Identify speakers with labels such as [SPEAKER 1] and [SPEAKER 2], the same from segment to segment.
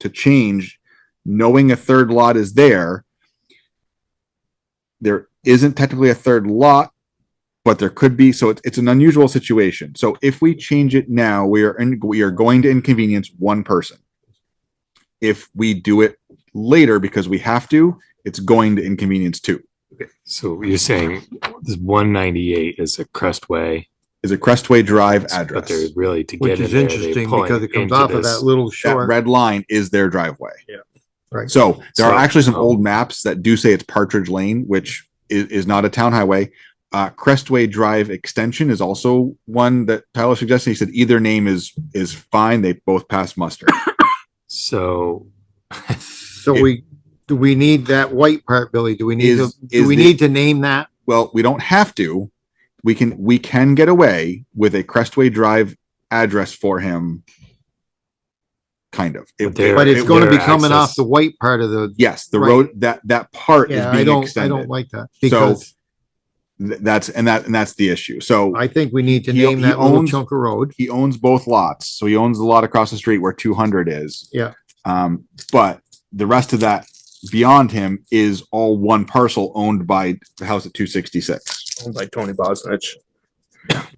[SPEAKER 1] to change, knowing a third lot is there. There isn't technically a third lot, but there could be, so it's, it's an unusual situation. So if we change it now, we are, in- we are going to inconvenience one person. If we do it later because we have to, it's going to inconvenience two.
[SPEAKER 2] So you're saying this one ninety-eight is a Crestway,
[SPEAKER 1] Is a Crestway Drive
[SPEAKER 2] but
[SPEAKER 1] address.
[SPEAKER 2] they're really to get
[SPEAKER 3] Which
[SPEAKER 2] in
[SPEAKER 3] is
[SPEAKER 2] there,
[SPEAKER 3] interesting
[SPEAKER 2] they pull
[SPEAKER 3] because it comes
[SPEAKER 2] into
[SPEAKER 3] off of
[SPEAKER 2] this.
[SPEAKER 3] that little
[SPEAKER 1] that
[SPEAKER 3] short.
[SPEAKER 1] red line is their driveway.
[SPEAKER 3] Yeah. Right.
[SPEAKER 1] So there are
[SPEAKER 2] So,
[SPEAKER 1] actually some
[SPEAKER 2] um,
[SPEAKER 1] old maps that do say it's Partridge Lane, which is, is not a town highway. Uh, Crestway Drive Extension is also one that Tyler suggested. He said either name is, is fine. They both pass muster.
[SPEAKER 2] So.
[SPEAKER 3] So we, do we need that white part, Billy? Do we need to,
[SPEAKER 1] Is-
[SPEAKER 3] do
[SPEAKER 1] is
[SPEAKER 3] we
[SPEAKER 1] the-
[SPEAKER 3] need to name that?
[SPEAKER 1] Well, we don't have to. We can, we can get away with a Crestway Drive address for him. Kind of. It-
[SPEAKER 2] But they're-
[SPEAKER 3] But it's
[SPEAKER 1] it-
[SPEAKER 3] gonna
[SPEAKER 2] would-
[SPEAKER 3] be
[SPEAKER 2] access-
[SPEAKER 3] coming off the white part of the,
[SPEAKER 1] Yes, the
[SPEAKER 3] Right.
[SPEAKER 1] road, that, that part is
[SPEAKER 3] yeah, I
[SPEAKER 1] being
[SPEAKER 3] don't, I don't
[SPEAKER 1] extended.
[SPEAKER 3] like that
[SPEAKER 1] So-
[SPEAKER 3] because
[SPEAKER 1] Th- That's, and that, and that's the issue. So.
[SPEAKER 3] I think we need to
[SPEAKER 1] He-
[SPEAKER 3] name
[SPEAKER 1] he
[SPEAKER 3] that little
[SPEAKER 1] owns-
[SPEAKER 3] chunk of road.
[SPEAKER 1] he owns both lots, so he owns the lot across the street where two hundred is.
[SPEAKER 3] Yeah.
[SPEAKER 1] Um, but the rest of that beyond him is all one parcel owned by the house at two sixty six.
[SPEAKER 4] owned by Tony Bosnich.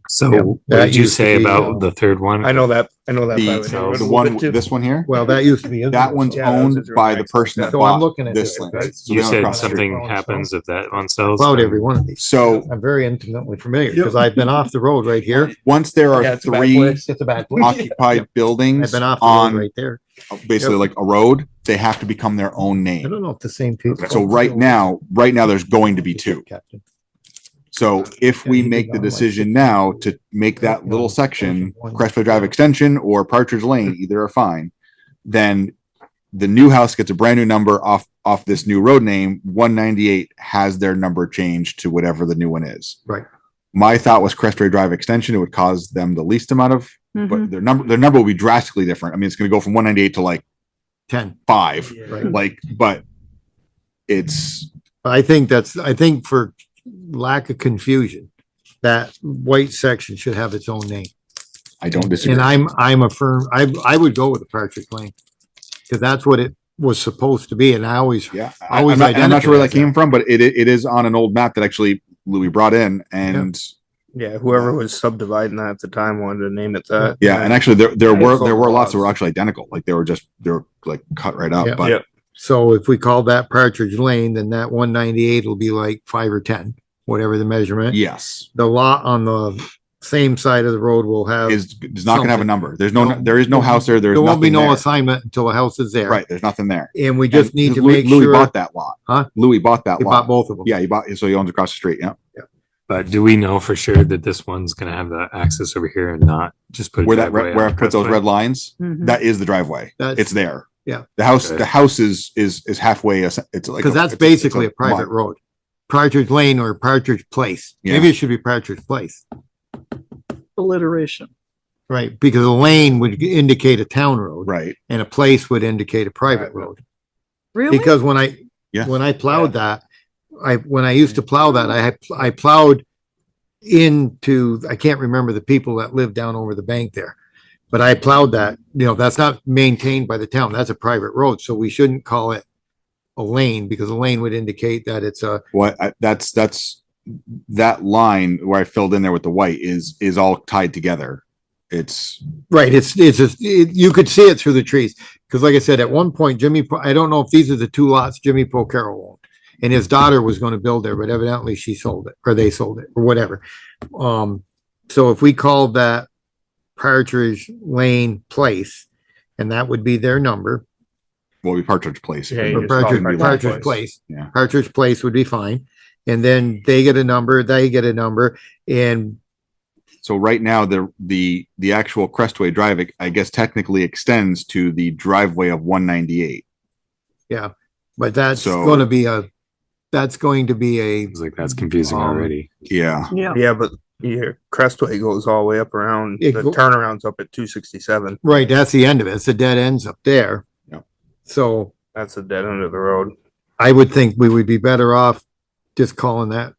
[SPEAKER 2] So
[SPEAKER 3] Yeah,
[SPEAKER 2] what
[SPEAKER 3] that
[SPEAKER 2] did you
[SPEAKER 3] used to
[SPEAKER 2] say
[SPEAKER 3] be,
[SPEAKER 2] about
[SPEAKER 3] uh,
[SPEAKER 2] the third one?
[SPEAKER 4] I know that, I know that. by
[SPEAKER 1] The, uh,
[SPEAKER 4] name.
[SPEAKER 1] the one, this one here,
[SPEAKER 3] Well, that used to be.
[SPEAKER 1] that one's
[SPEAKER 4] Yeah, those
[SPEAKER 1] owned
[SPEAKER 4] are
[SPEAKER 1] by the
[SPEAKER 4] nice.
[SPEAKER 1] person that
[SPEAKER 3] So I'm
[SPEAKER 1] bought
[SPEAKER 3] looking at
[SPEAKER 1] this
[SPEAKER 3] this
[SPEAKER 1] land. So
[SPEAKER 2] You
[SPEAKER 1] they're
[SPEAKER 2] said
[SPEAKER 1] across the street.
[SPEAKER 2] something happens if that one sells.
[SPEAKER 3] about
[SPEAKER 2] then-
[SPEAKER 3] every one of these.
[SPEAKER 1] So
[SPEAKER 3] I'm very intimately familiar because I've been off the road right here.
[SPEAKER 1] once there
[SPEAKER 4] Yeah,
[SPEAKER 1] are
[SPEAKER 4] it's a bad
[SPEAKER 1] three
[SPEAKER 4] place.
[SPEAKER 3] It's at the back.
[SPEAKER 1] occupied
[SPEAKER 3] I've
[SPEAKER 1] buildings
[SPEAKER 3] been off the road
[SPEAKER 1] on
[SPEAKER 3] right there.
[SPEAKER 1] basically like a road, they have to become their own
[SPEAKER 3] I
[SPEAKER 1] name.
[SPEAKER 3] don't know if the same people.
[SPEAKER 1] So right now, right now, there's going to be two.
[SPEAKER 3] Captain.
[SPEAKER 1] So if
[SPEAKER 3] Yeah,
[SPEAKER 1] we
[SPEAKER 3] you could
[SPEAKER 1] make
[SPEAKER 3] go
[SPEAKER 1] the
[SPEAKER 3] on, like,
[SPEAKER 1] decision
[SPEAKER 3] six
[SPEAKER 1] now
[SPEAKER 3] feet.
[SPEAKER 1] to make that
[SPEAKER 3] Yeah,
[SPEAKER 1] little
[SPEAKER 3] it's
[SPEAKER 1] section,
[SPEAKER 3] one.
[SPEAKER 1] Crestwood Drive Extension or Partridge Lane, either are fine. Then the new house gets a brand new number off, off this new road name. One ninety-eight has their number changed to whatever the new one is.
[SPEAKER 3] Right.
[SPEAKER 1] My thought was Crestwood Drive Extension, it would cause them the least amount of,
[SPEAKER 5] Mhm.
[SPEAKER 1] but their number, their number will be drastically different. I mean, it's gonna go from one ninety-eight to like
[SPEAKER 3] Ten,
[SPEAKER 1] five,
[SPEAKER 3] right?
[SPEAKER 1] like, but it's,
[SPEAKER 3] I think that's, I think for lack of confusion, that white section should have its own name.
[SPEAKER 1] I don't disagree.
[SPEAKER 3] And I'm, I'm a firm, I, I would go with the Partridge Lane. Cause that's what it was supposed to be and I always,
[SPEAKER 1] Yeah, I-
[SPEAKER 3] Always
[SPEAKER 1] I'm, not, I'm not sure where that
[SPEAKER 3] identifies
[SPEAKER 1] came from, but it it is on an old map that actually Louis brought in, and
[SPEAKER 4] Yeah, whoever was subdividing that at the time wanted to name it that.
[SPEAKER 1] yeah, and actually there there
[SPEAKER 4] Yeah,
[SPEAKER 1] were
[SPEAKER 4] it's
[SPEAKER 1] there were
[SPEAKER 4] all
[SPEAKER 1] lots that were
[SPEAKER 4] lots.
[SPEAKER 1] actually identical, like they were just they were like cut right up.
[SPEAKER 3] Yeah.
[SPEAKER 1] But
[SPEAKER 4] Yeah.
[SPEAKER 3] so if we call that Partridge Lane, then that one ninety-eight will be like five or ten, whatever the measurement.
[SPEAKER 1] yes,
[SPEAKER 3] The lot on the same side of the road will have,
[SPEAKER 1] is is not going to have a
[SPEAKER 3] something.
[SPEAKER 1] number. There's no
[SPEAKER 3] No.
[SPEAKER 1] there is no house there. There's
[SPEAKER 3] there won't be
[SPEAKER 1] nothing
[SPEAKER 3] no
[SPEAKER 1] there.
[SPEAKER 3] assignment until the house is there.
[SPEAKER 1] right. There's nothing there.
[SPEAKER 3] And we just
[SPEAKER 1] And
[SPEAKER 3] need to
[SPEAKER 1] Louis,
[SPEAKER 3] make
[SPEAKER 1] Louis
[SPEAKER 3] sure.
[SPEAKER 1] bought that lot.
[SPEAKER 3] Huh?
[SPEAKER 1] Louis bought that
[SPEAKER 3] He
[SPEAKER 1] lot.
[SPEAKER 3] bought both of them.
[SPEAKER 1] yeah, he bought so he owns across the street. Yeah,
[SPEAKER 2] But do we know for sure that this one's gonna have the access over here and not just put? a
[SPEAKER 1] where that
[SPEAKER 2] driveway
[SPEAKER 1] red, where I
[SPEAKER 2] on
[SPEAKER 1] put those
[SPEAKER 2] Crestway?
[SPEAKER 1] red lines,
[SPEAKER 5] Mhm.
[SPEAKER 1] that is the driveway.
[SPEAKER 3] That's-
[SPEAKER 1] It's there.
[SPEAKER 3] Yeah.
[SPEAKER 1] the house
[SPEAKER 2] Okay.
[SPEAKER 1] the house is is is halfway. It's like
[SPEAKER 3] Because
[SPEAKER 1] a- it's
[SPEAKER 3] that's
[SPEAKER 1] a- it's
[SPEAKER 3] basically a
[SPEAKER 1] lot.
[SPEAKER 3] private road. Partridge Lane or Partridge Place.
[SPEAKER 1] Yeah.
[SPEAKER 3] Maybe it should be Partridge Place,
[SPEAKER 5] Alliteration.
[SPEAKER 3] right? Because a lane would indicate a town road
[SPEAKER 1] right.
[SPEAKER 3] and a place would indicate a private
[SPEAKER 4] Private.
[SPEAKER 3] road.
[SPEAKER 5] Really?
[SPEAKER 3] Because when I,
[SPEAKER 1] Yeah.
[SPEAKER 3] when I plowed that, I, when I used to plow that, I, had- I plowed into, I can't remember the people that lived down over the bank there. But I plowed that, you know, that's not maintained by the town. That's a private road. So we shouldn't call it a lane because a lane would indicate that it's a,
[SPEAKER 1] what I, that's that's that line where I filled in there with the white is is all tied together. It's
[SPEAKER 3] Right, it's, it's, just- it- you could see it through the trees, because like I said, at one point Jimmy, Po- I don't know if these are the two lots Jimmy Pocaro owned. And his daughter was gonna build there, but evidently she sold it, or they sold it, or whatever. Um, so if we called that Partridge Lane Place, and that would be their number,
[SPEAKER 1] well, we Partridge Place.
[SPEAKER 4] Yeah,
[SPEAKER 3] or
[SPEAKER 4] just call it
[SPEAKER 3] Partridge,
[SPEAKER 1] Partridge
[SPEAKER 3] Partridge
[SPEAKER 4] Place.
[SPEAKER 3] Place.
[SPEAKER 1] Yeah.
[SPEAKER 3] Partridge Place would be fine, and then they get a number, they get a number, and
[SPEAKER 1] So right now the the the actual Crestway Drive, I guess, technically extends to the driveway of 198.
[SPEAKER 3] But that's
[SPEAKER 1] So-
[SPEAKER 3] gonna be a, that's going to be a,
[SPEAKER 2] Seems like that's confusing
[SPEAKER 3] Um,
[SPEAKER 2] already.
[SPEAKER 1] Yeah,
[SPEAKER 5] Yeah.
[SPEAKER 4] Yeah, but your Crestway goes all the way up around, the
[SPEAKER 3] It go-
[SPEAKER 4] turnaround's up at two sixty-seven.
[SPEAKER 3] right, that's the end of it. It's a dead ends up there.
[SPEAKER 1] Yep.
[SPEAKER 3] So
[SPEAKER 4] That's the dead end of the road.
[SPEAKER 3] I would think we would be better off just calling that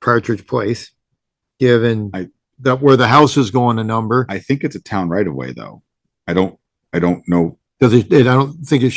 [SPEAKER 3] Partridge Place, given
[SPEAKER 1] I-
[SPEAKER 3] that where the house is going a number.
[SPEAKER 1] I think it's a town right away though. I don't I don't know.
[SPEAKER 3] Cause it, it- I don't think it